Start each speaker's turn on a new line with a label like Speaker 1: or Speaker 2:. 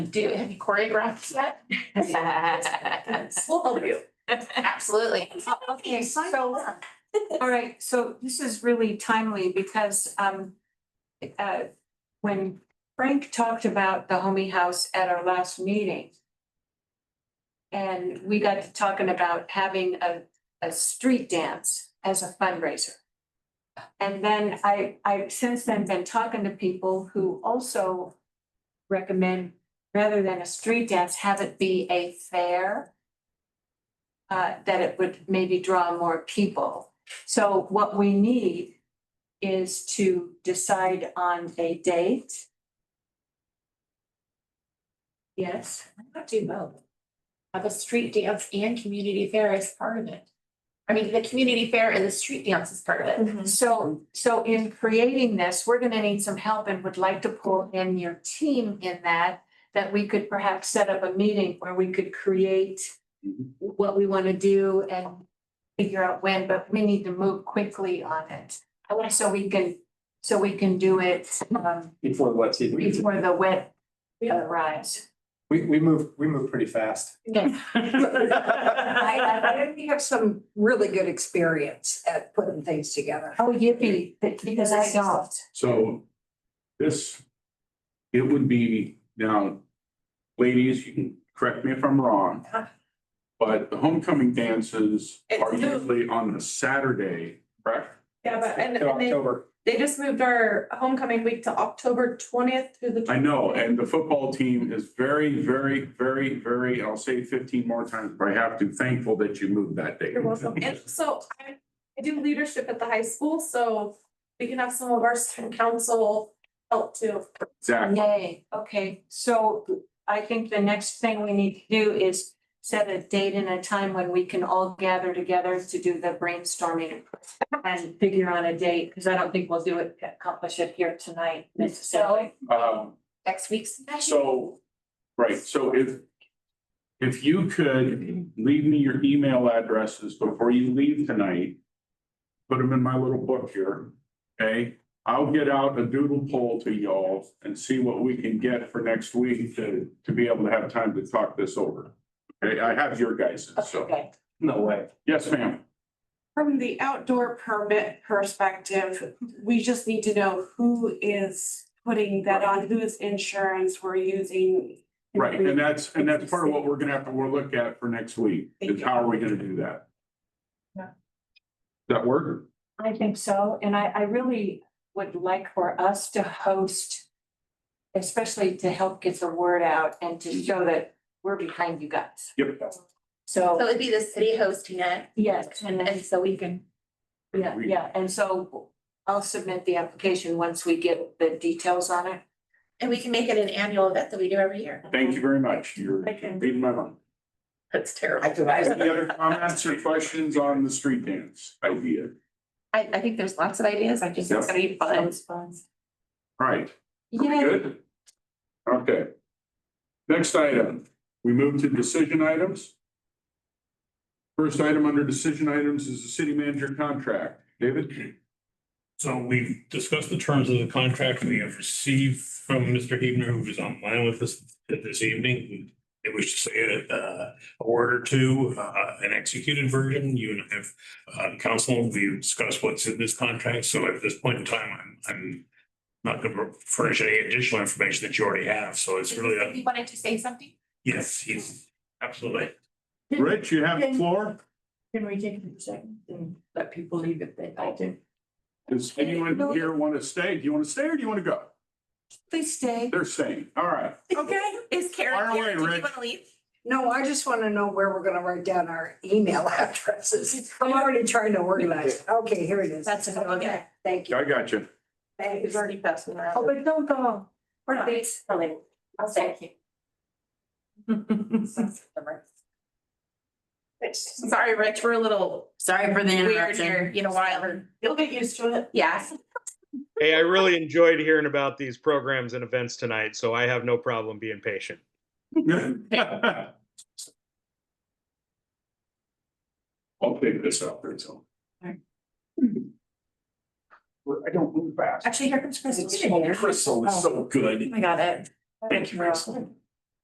Speaker 1: Do, have you choreographed that? We'll help you. Absolutely.
Speaker 2: Oh, Okay, so, all right, so this is really timely because, um, uh, when Frank talked about the homie house at our last meeting, and we got to talking about having a, a street dance as a fundraiser. And then I, I've since then been talking to people who also recommend, rather than a street dance, have it be a fair uh, that it would maybe draw more people. So what we need is to decide on a date. Yes,
Speaker 1: Not do both. Have a street dance and community fair as part of it. I mean, the community fair and the street dance is part of it.
Speaker 2: so, so in creating this, we're gonna need some help and would like to pull in your team in that, that we could perhaps set up a meeting where we could create
Speaker 3: Mhm.
Speaker 2: what we want to do and figure out when, but we need to move quickly on it. I want, so we can, so we can do it, um,
Speaker 3: Before what season?
Speaker 2: before the wet uh, arrives.
Speaker 3: We, we move, we move pretty fast.
Speaker 4: I, I, I think we have some really good experience at putting things together.
Speaker 2: Oh, yippee, because I don't.
Speaker 5: So this, it would be now, ladies, you can correct me if I'm wrong. But the homecoming dances are
Speaker 6: Uh-huh. It's-
Speaker 5: usually on the Saturday, correct?
Speaker 6: Yeah, but and
Speaker 3: In
Speaker 6: and they
Speaker 3: October,
Speaker 6: they just moved our homecoming week to October twentieth through the.
Speaker 5: I know, and the football team is very, very, very, very, and I'll say it fifteen more times, but I have to thankful that you moved that date.
Speaker 6: You're welcome. And so I I do leadership at the high school, so we can have some of our student council help too.
Speaker 5: Exactly.
Speaker 2: Yay, okay, so I think the next thing we need to do is set a date and a time when we can all gather together to do the brainstorming and figure on a date, because I don't think we'll do it, accomplish it here tonight necessarily.
Speaker 5: Um,
Speaker 1: Next week's.
Speaker 5: So, right, so if, if you could leave me your email addresses before you leave tonight, put them in my little book here, okay? I'll get out a doodle poll to y'all and see what we can get for next week to, to be able to have time to talk this over. Okay, I have your guys, so,
Speaker 2: Okay,
Speaker 3: no way.
Speaker 5: yes, ma'am.
Speaker 7: From the outdoor permit perspective, we just need to know who is putting that on, whose insurance we're using.
Speaker 5: Right, and that's, and that's part of what we're gonna have to, we'll look at for next week, is how are we gonna do that?
Speaker 6: Yeah.
Speaker 5: Does that work?
Speaker 2: I think so, and I, I really would like for us to host, especially to help get the word out and to show that we're behind you guys.
Speaker 5: Yep.
Speaker 2: So.
Speaker 1: So it'd be the city hosting it
Speaker 2: Yes, and then,
Speaker 1: and so we can.
Speaker 2: yeah,
Speaker 5: We-
Speaker 2: yeah, and so I'll submit the application once we get the details on it.
Speaker 1: And we can make it an annual event that we do every year.
Speaker 5: Thank you very much. You're
Speaker 6: Thank you.
Speaker 5: reading my mind.
Speaker 1: That's
Speaker 4: I
Speaker 1: terrible.
Speaker 4: do,
Speaker 5: Any
Speaker 4: I,
Speaker 5: other comments or questions on the street dance idea?
Speaker 1: I, I think there's lots of ideas. I just, it's gonna be fun.
Speaker 5: All Right,
Speaker 2: Yeah,
Speaker 5: good? Okay. Next item, we move to decision items. First item under decision items is the city manager contract. David?
Speaker 8: So we've discussed the terms of the contract we have received from Mr. Hebner, who was online with us this evening. It was just a, uh, a word or two, uh, an executed version. You and I have, uh, council, we discussed what's in this contract. So at this point in time, I'm, I'm not going to furnish any additional information that you already have. So it's really, a-
Speaker 1: You wanted to say something?
Speaker 8: yes, he's absolutely.
Speaker 5: Rich, you have the floor?
Speaker 1: Can we take a second and let people leave if they like to?
Speaker 5: Does anyone here want to stay? Do you want to stay or do you want to go?
Speaker 2: please stay.
Speaker 5: They're staying. All right.
Speaker 6: Okay.
Speaker 1: Is Karen
Speaker 5: Fire
Speaker 1: here?
Speaker 5: away,
Speaker 1: Do you
Speaker 5: Rich.
Speaker 1: wanna leave?
Speaker 4: no, I just want to know where we're going to write down our email addresses. I'm already trying to organize. Okay, here it is.
Speaker 2: That's a good
Speaker 4: Okay, Thank you.
Speaker 5: I got you.
Speaker 4: Thanks.
Speaker 1: already passing around.
Speaker 2: Oh, but don't go.
Speaker 1: We're not. I'll say. Sorry, Rich, we're a little. Sorry for the interruption. Weird here, you know, wild.
Speaker 7: You'll get used to it.
Speaker 1: Yeah.
Speaker 9: Hey, I really enjoyed hearing about these programs and events tonight, so I have no problem being patient.
Speaker 5: I'll take this out there, so. I don't move fast.
Speaker 1: Actually, here comes Chris.
Speaker 3: Crystal is so good.
Speaker 1: Oh I got it.
Speaker 3: Thank you, Crystal.